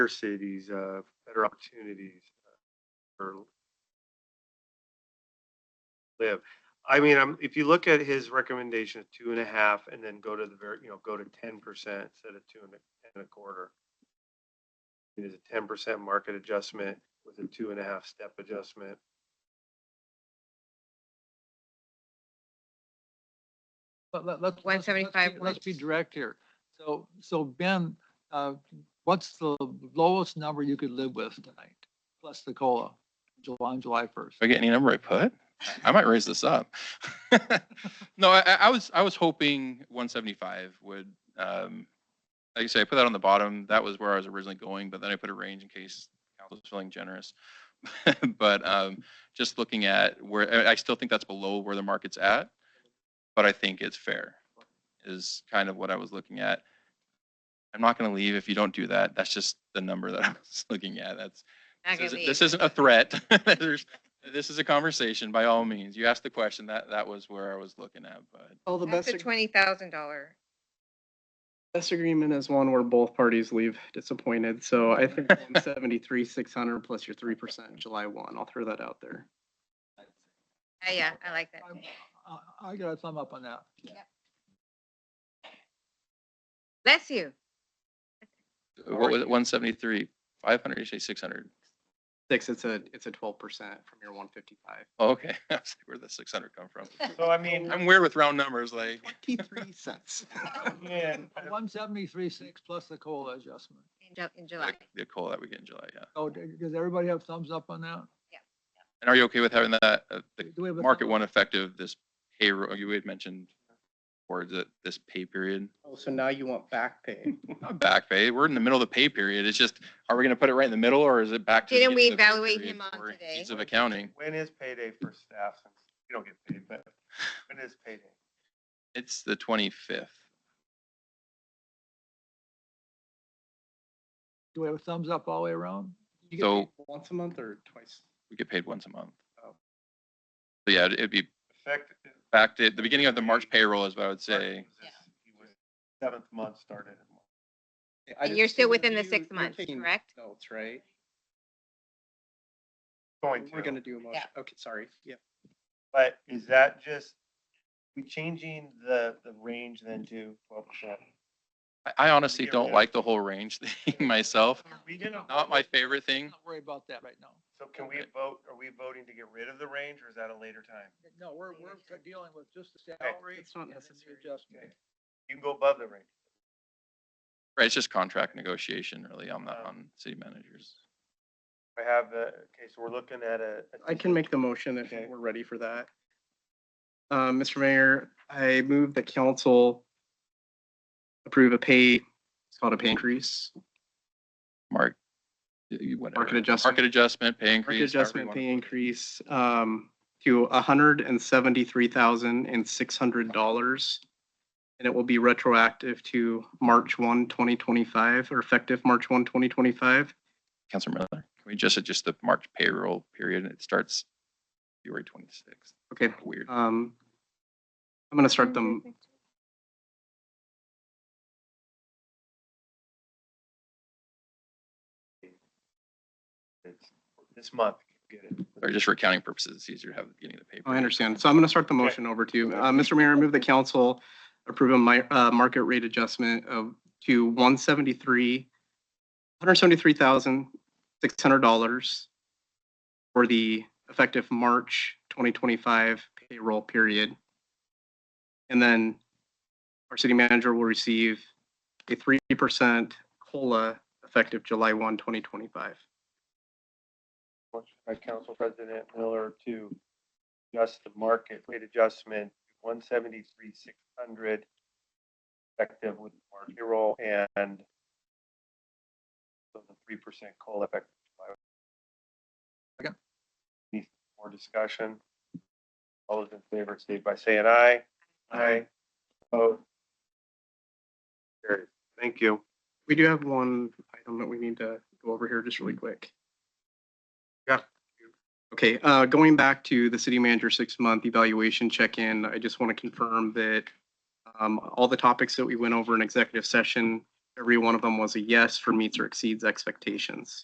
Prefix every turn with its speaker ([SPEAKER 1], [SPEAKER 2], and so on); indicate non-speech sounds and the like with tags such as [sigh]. [SPEAKER 1] bigger cities, uh, better opportunities uh, for live. I mean, i if you look at his recommendation of two and a half and then go to the very, you know, go to ten percent instead of two and a, and a quarter. It is a ten percent market adjustment with a two and a half step adjustment.
[SPEAKER 2] But let, let's. let's- let's be-
[SPEAKER 3] 175
[SPEAKER 2] Let's be direct here. So, so Ben, uh, what's the lowest number you could live with tonight? Plus the COLA, July, on July first.
[SPEAKER 4] If I get any number I put, I might raise this up. [laughs] No, I, I I was, I was hoping one seventy-five would, um, like I say, I put that on the bottom. That was where I was originally going, but then I put a range in case council was feeling generous. [laughs] But, um, just looking at where, I, I still think that's below where the market's at, but I think it's fair is kind of what I was looking at. I'm not gonna leave if you don't do that. That's just the number that [laughs] I was looking at. That's
[SPEAKER 3] Not
[SPEAKER 4] This
[SPEAKER 3] gonna
[SPEAKER 4] isn't,
[SPEAKER 3] be.
[SPEAKER 4] this isn't a threat. [laughs] There's, this is a conversation by all means. You asked the question, that, that was where I was looking at, but
[SPEAKER 5] Well, the
[SPEAKER 3] That's
[SPEAKER 5] best,
[SPEAKER 3] a
[SPEAKER 5] ag-
[SPEAKER 3] twenty thousand dollar.
[SPEAKER 5] best agreement is one where both parties leave disappointed, so I think [laughs] seventy-three, six hundred plus your three percent July one, I'll throw that out there.
[SPEAKER 3] Yeah, I like that.
[SPEAKER 2] I, I got a thumb up on that.
[SPEAKER 3] Bless you.
[SPEAKER 4] what was it, one seventy-three, five hundred, you say six hundred?
[SPEAKER 5] Six, it's a, it's a twelve percent from your one fifty-five.
[SPEAKER 4] Oh, Okay, [laughs] I was like, where'd the six hundred come
[SPEAKER 3] [laughs]
[SPEAKER 4] from?
[SPEAKER 1] So I mean,
[SPEAKER 4] I'm weird with round numbers, like,
[SPEAKER 5] [laughs] Twenty-three cents.
[SPEAKER 1] man,
[SPEAKER 2] One seventy-three, six plus the COLA adjustment.
[SPEAKER 3] In Ju- in July.
[SPEAKER 4] like the coal that we get in July, yeah.
[SPEAKER 2] So d- does everybody have thumbs up on that?
[SPEAKER 4] And are you okay with having that, uh, the
[SPEAKER 2] Do we have a
[SPEAKER 4] market
[SPEAKER 2] thumb
[SPEAKER 4] one
[SPEAKER 2] up?
[SPEAKER 4] effective this payroll, you had mentioned, or that this pay period?
[SPEAKER 5] Oh, So now you want back pay.
[SPEAKER 4] Not back pay, we're in the middle of the pay period, it's just, are we gonna put it right in the middle, or is it back to? the
[SPEAKER 3] Didn't we
[SPEAKER 4] end of the pay
[SPEAKER 3] evaluate
[SPEAKER 4] period
[SPEAKER 3] him on
[SPEAKER 4] for
[SPEAKER 3] today?
[SPEAKER 4] ease Of accounting.
[SPEAKER 1] when is payday for staff? Since You don't get paid, but when is payday?
[SPEAKER 4] It's the twenty-fifth.
[SPEAKER 2] Do we have a thumbs up all the way around?
[SPEAKER 5] You get paid
[SPEAKER 4] So-
[SPEAKER 5] Once a month or twice?
[SPEAKER 4] We get paid once a month.
[SPEAKER 5] Oh.
[SPEAKER 4] So yeah, it'd be
[SPEAKER 1] Effective. uh,
[SPEAKER 4] back to the beginning of the March payroll is what I would say.
[SPEAKER 1] Seventh month started. in March.
[SPEAKER 5] I
[SPEAKER 3] And you're
[SPEAKER 5] just-
[SPEAKER 3] still within the
[SPEAKER 5] you-
[SPEAKER 3] six
[SPEAKER 5] you're
[SPEAKER 3] months,
[SPEAKER 5] taking
[SPEAKER 3] correct?
[SPEAKER 5] Notes, right?
[SPEAKER 1] Going to.
[SPEAKER 5] We're gonna do a motion,
[SPEAKER 3] Yeah.
[SPEAKER 5] okay, sorry, yeah.
[SPEAKER 1] But is that just, we changing the, the range then to twelve percent?
[SPEAKER 4] I- I honestly don't like the whole range [laughs] thing myself.
[SPEAKER 1] We didn't.
[SPEAKER 4] Not my favorite thing.
[SPEAKER 2] Don't worry about that right now.
[SPEAKER 1] So can we vote, are we voting to get rid of the range or is that a later time?
[SPEAKER 2] No, we're, we're dealing with just the salary.
[SPEAKER 5] It's not
[SPEAKER 2] and then the
[SPEAKER 5] necessary.
[SPEAKER 2] Adjustment.
[SPEAKER 1] You can go above the range.
[SPEAKER 4] Right, it's just contract negotiation really on
[SPEAKER 5] Oh.
[SPEAKER 4] the, on city managers.
[SPEAKER 1] I have the, okay, so we're looking at a. a-
[SPEAKER 5] I can make the motion if
[SPEAKER 1] Okay.
[SPEAKER 5] we're ready for that. Um, Mr. Mayor, I move the council approve a pay, it's called a pay increase,
[SPEAKER 4] Mark. you- whatever.
[SPEAKER 5] Market adjustment.
[SPEAKER 4] Market adjustment, pay
[SPEAKER 5] market
[SPEAKER 4] increase. however you
[SPEAKER 5] adjustment
[SPEAKER 4] wanna-
[SPEAKER 5] pay increase, um, to hundred and seventy-three thousand and six hundred dollars. And it will be retroactive to March 1, 2025, or effective March 1, 2025.
[SPEAKER 4] Councilor Miller, can we just adjust the March payroll period? It starts February twenty-sixth.
[SPEAKER 5] Okay,
[SPEAKER 4] Weird.
[SPEAKER 5] um, I'm gonna start them,
[SPEAKER 1] it's This month, get it.
[SPEAKER 4] Or just for accounting purposes, it's easier to have the beginning of the pay.
[SPEAKER 5] I
[SPEAKER 4] period.
[SPEAKER 5] understand. So I'm going to start the motion over to you. Uh, Mr. Mayor, I move the council approve a mi- uh, market rate adjustment of, to one seventy-three, one hundred seventy-three thousand, six hundred dollars for the effective March twenty twenty-five payroll period. And then our city manager will receive a three percent COLA effective July 1, 2025.
[SPEAKER 1] Motion by Council President Miller to adjust the market rate adjustment, one seventy-three, six hundred, effective with market roll and so the three percent COLA effect.
[SPEAKER 2] Second.
[SPEAKER 1] Any more discussion? All those in favor, state by saying aye. Aye. Vote. Carried. Thank you.
[SPEAKER 5] We do have one item that we need to go over here just really quick.
[SPEAKER 1] Yeah.
[SPEAKER 5] Okay, uh, going back to the city manager six-month evaluation check-in, I just want to confirm that um, all the topics that we went over in executive session Every one of them was a yes for meets or exceeds expectations.